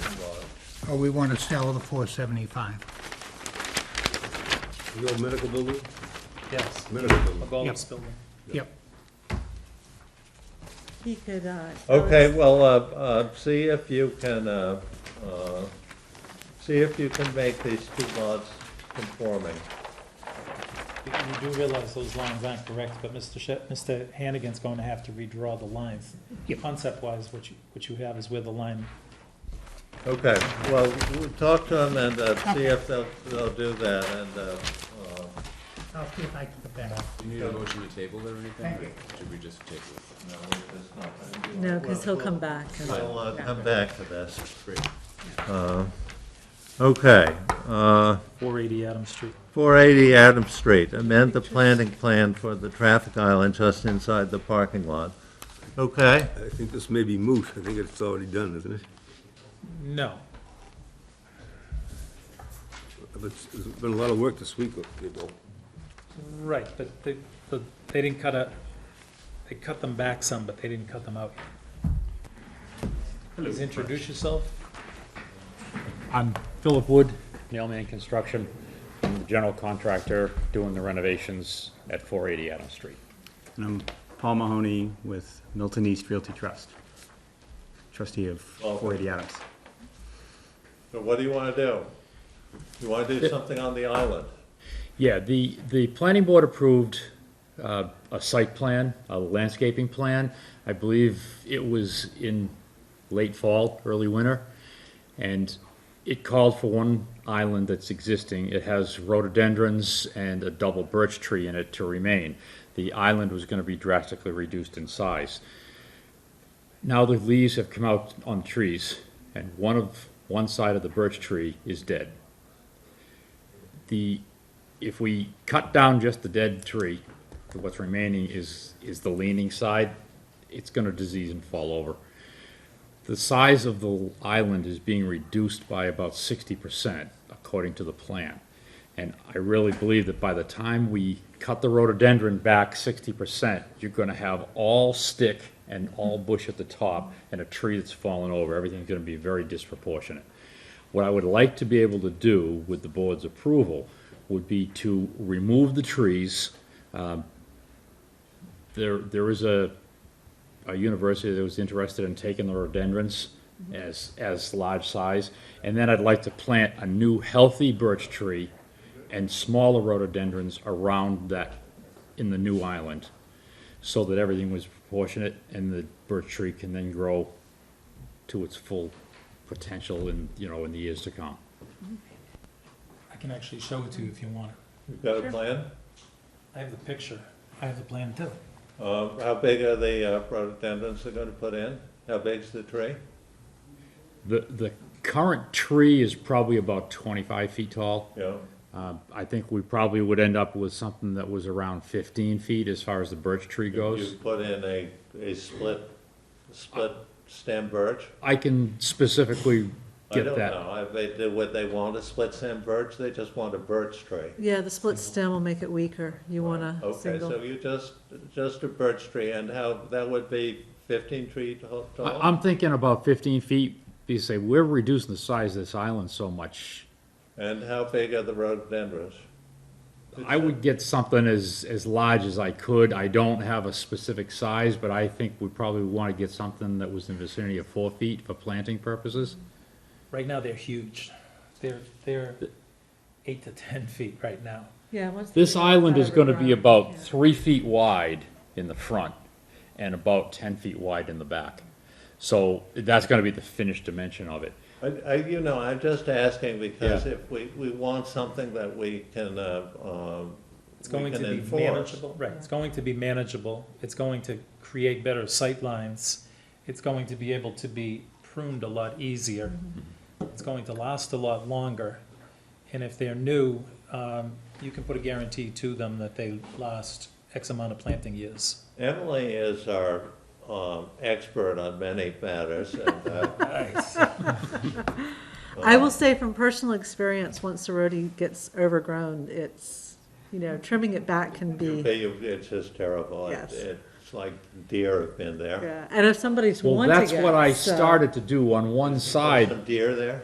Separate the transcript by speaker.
Speaker 1: or we want to sell the four seventy-five.
Speaker 2: The old medical building?
Speaker 3: Yes,
Speaker 2: Medical building.
Speaker 3: above
Speaker 1: Yep.
Speaker 3: this building.
Speaker 1: Yep.
Speaker 4: He could, uh.
Speaker 5: Oh.
Speaker 4: tell
Speaker 6: Okay,
Speaker 4: us-
Speaker 6: well, uh, uh, see if you can, uh, uh, see if you can make these two lots conforming.
Speaker 3: You you do realize those lines aren't correct, but Mr. Shet, Mr. Hannigan's going to have to redraw the lines.
Speaker 1: Yep.
Speaker 3: Concept-wise, what you, what you have is where the line,
Speaker 6: Okay, well, we'll talk to them and uh, see if they'll, they'll do that, and, uh, uh,
Speaker 1: I'll see if I can get that.
Speaker 7: Do you need a motion to table it or anything,
Speaker 1: Thank
Speaker 7: or
Speaker 1: you.
Speaker 7: should we just table it?
Speaker 6: no, we're just not gonna do
Speaker 4: No,
Speaker 6: that.
Speaker 4: because he'll come back. and-
Speaker 6: We'll uh,
Speaker 4: Yeah.
Speaker 6: come back to this.
Speaker 7: Great.
Speaker 6: Uh, Okay, uh,
Speaker 3: 480 Adams Street.
Speaker 6: 480 Adams Street, amend the planning plan for the traffic island just inside the parking lot. Okay?
Speaker 2: I think this may be moot. I think it's already done, isn't it?
Speaker 3: No,
Speaker 2: It's, it's been a lot of work this week, people.
Speaker 3: right, but they, but they didn't cut a, they cut them back some, but they didn't cut them out. Please introduce yourself.
Speaker 5: I'm Philip Wood, Nailman Construction, I'm the general contractor doing the renovations at 480 Adams Street.
Speaker 8: And I'm Paul Mahoney with Milton East Realty Trust, trustee of 480 Adams.
Speaker 6: So what do you want to do? You want to do something on the island?
Speaker 5: Yeah, the, the planning board approved uh, a site plan, a landscaping plan. I believe it was in late fall, early winter. And it called for one island that's existing. It has rhododendrons and a double birch tree in it to remain. The island was going to be drastically reduced in size. Now the leaves have come out on trees, and one of, one side of the birch tree is dead. The if we cut down just the dead tree, what's remaining is, is the leaning side, it's gonna disease and fall over. The size of the island is being reduced by about sixty percent, according to the plan. And I really believe that by the time we cut the rhododendron back sixty percent, you're gonna have all stick and all bush at the top, and a tree that's fallen over, everything's gonna be very disproportionate. What I would like to be able to do with the board's approval would be to remove the trees. Um, There, there is a, a university that was interested in taking the rhododendrons as, as large size. And then I'd like to plant a new healthy birch tree and smaller rhododendrons around that, in the new island, so that everything was proportionate and the birch tree can then grow to its full potential in, you know, in the years to come.
Speaker 3: I can actually show it to you if you want. it.
Speaker 6: You've got a plan?
Speaker 3: I have the picture. I have the plan too.
Speaker 6: Uh, How big are the uh, rhododendrons they're going to put in? How big's the tree?
Speaker 5: The, the current tree is probably about twenty-five feet tall.
Speaker 6: Yeah,
Speaker 5: Uh, I think we probably would end up with something that was around fifteen feet as far as the birch tree
Speaker 6: you
Speaker 5: goes.
Speaker 6: put in a, a split, split stem birch?
Speaker 5: I can specifically
Speaker 6: I
Speaker 5: get
Speaker 6: don't
Speaker 5: that.
Speaker 6: know, if they do what they want, a split stem birch, they just want a birch tree.
Speaker 4: Yeah, the split stem will make it weaker. You want a
Speaker 6: Okay,
Speaker 4: single.
Speaker 6: so you just, just a birch tree, and how, that would be fifteen tree tall?
Speaker 5: I, I'm thinking about fifteen feet, because say, we're reducing the size of this island so much.
Speaker 6: And how big are the rhododendrons?
Speaker 5: I would get something as, as large as I could. I don't have a specific size, but I think we probably want to get something that was in the vicinity of four feet for planting purposes.
Speaker 3: Right now, they're huge. They're, they're eight to 10 feet right now.
Speaker 4: Yeah, once they
Speaker 5: This
Speaker 4: get
Speaker 5: island is
Speaker 4: outside
Speaker 5: gonna
Speaker 4: of
Speaker 5: be
Speaker 4: the
Speaker 5: about
Speaker 4: garage,
Speaker 5: three feet wide in the front and about ten feet wide in the back. So that's gonna be the finished dimension of it.
Speaker 6: I, I, you know, I'm just asking because if we, we want something that we can, uh, um.
Speaker 3: It's going
Speaker 6: we
Speaker 3: to
Speaker 6: can
Speaker 3: be
Speaker 6: enforce.
Speaker 3: manageable, right, it's going to be manageable, it's going to create better sightlines, it's going to be able to be pruned a lot easier, it's going to last a lot longer, and if they're new, um, you can put a guarantee to them that they last X amount of planting years.
Speaker 6: Emily is our, um, expert on many matters and, uh,
Speaker 4: yeah. I will say from personal experience, once the roadie gets overgrown, it's, you know, trimming it back can be,
Speaker 6: okay, you- it's just terrible. It-
Speaker 4: Yes.
Speaker 6: It's like deer have been there.
Speaker 4: yeah. And if somebody's
Speaker 5: Well,
Speaker 4: wanting it.
Speaker 5: that's what I
Speaker 4: so-
Speaker 5: started to do on one side
Speaker 6: Some deer there?